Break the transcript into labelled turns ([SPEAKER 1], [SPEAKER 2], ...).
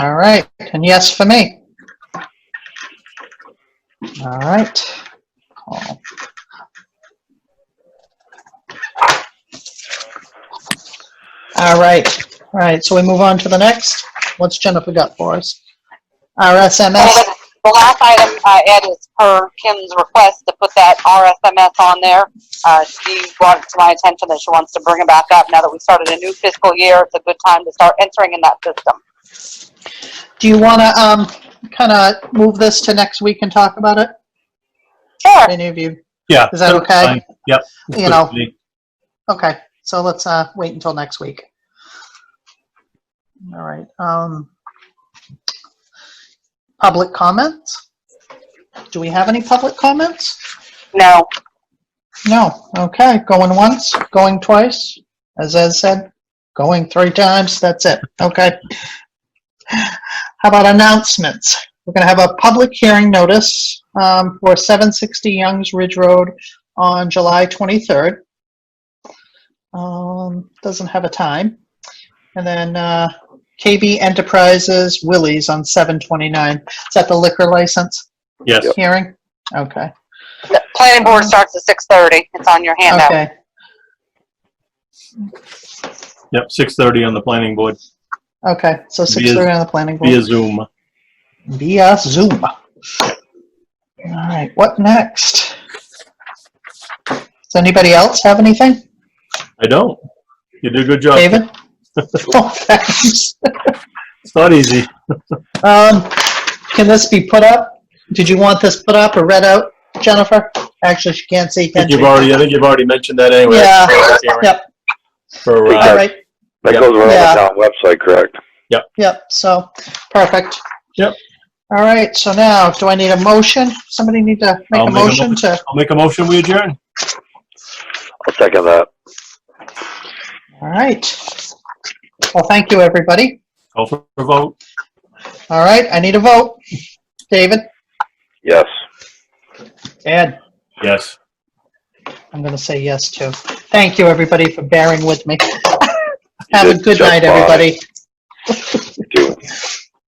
[SPEAKER 1] All right, and yes for me. All right. Call. All right, all right, so we move on to the next. What's Jennifer got for us? RSMS,
[SPEAKER 2] And The last item I added is per Kim's request to put that RSMS on there. Uh, she brought it to my attention that she wants to bring it back up. Now that we started a new fiscal year, it's a good time to start entering in that system.
[SPEAKER 1] do you want to, um, kind of move this to next week and talk about it?
[SPEAKER 2] Sure.
[SPEAKER 1] Any of you?
[SPEAKER 3] Yeah.
[SPEAKER 1] Is that
[SPEAKER 3] that's
[SPEAKER 1] okay?
[SPEAKER 3] fine. Yep. that's
[SPEAKER 1] You
[SPEAKER 3] good
[SPEAKER 1] know.
[SPEAKER 3] with me.
[SPEAKER 1] Okay, so let's uh, wait until next week. All right. um, Public comments? Do we have any public comments?
[SPEAKER 2] No,
[SPEAKER 1] No, okay, going once, going twice, as Ed said, going three times, that's it, okay. How about announcements? We're gonna have a public hearing notice um, for 760 Youngs Ridge Road on July 23rd. Um, doesn't have a time. And then uh, KB Enterprises Willie's on 729. Is that the liquor license
[SPEAKER 3] Yes.
[SPEAKER 1] hearing? Okay.
[SPEAKER 2] the planning board starts at six thirty. It's on your handout.
[SPEAKER 1] Okay.
[SPEAKER 3] Yep. 6:30 on the planning board
[SPEAKER 1] Okay, so six thirty on the planning
[SPEAKER 3] via
[SPEAKER 1] board
[SPEAKER 3] Zoom.
[SPEAKER 1] via Zoom. All right, what next? Does anybody else have anything?
[SPEAKER 3] I don't. You did a good job.
[SPEAKER 1] David? Oh, thanks.
[SPEAKER 3] It's not easy.
[SPEAKER 1] Um, can this be put up? Did you want this put up or read out, Jennifer? Actually, she can't see,
[SPEAKER 3] I
[SPEAKER 1] can
[SPEAKER 3] think
[SPEAKER 1] she?
[SPEAKER 3] you've already. I think you've already mentioned that anyway.
[SPEAKER 1] Yeah,
[SPEAKER 3] Karen,
[SPEAKER 1] yep,
[SPEAKER 3] For
[SPEAKER 1] all
[SPEAKER 3] uh,
[SPEAKER 1] right,
[SPEAKER 4] That goes right on the town website, correct?
[SPEAKER 1] yep, so, perfect.
[SPEAKER 3] Yep.
[SPEAKER 1] All right, so now, do I need a motion? Somebody need to make
[SPEAKER 3] I'll
[SPEAKER 1] a
[SPEAKER 3] make a
[SPEAKER 1] motion to?
[SPEAKER 3] I'll make a motion. We adjourn.
[SPEAKER 4] I'll second that.
[SPEAKER 1] All right. Well, thank you, everybody.
[SPEAKER 3] Call for a vote.
[SPEAKER 1] All right, I need a vote. David?
[SPEAKER 4] Yes.
[SPEAKER 1] Ed?
[SPEAKER 3] Yes.
[SPEAKER 1] I'm going to say yes, too. Thank you, everybody, for bearing with me. Have a
[SPEAKER 4] did
[SPEAKER 1] good
[SPEAKER 4] just
[SPEAKER 1] night,
[SPEAKER 4] fine.
[SPEAKER 1] everybody.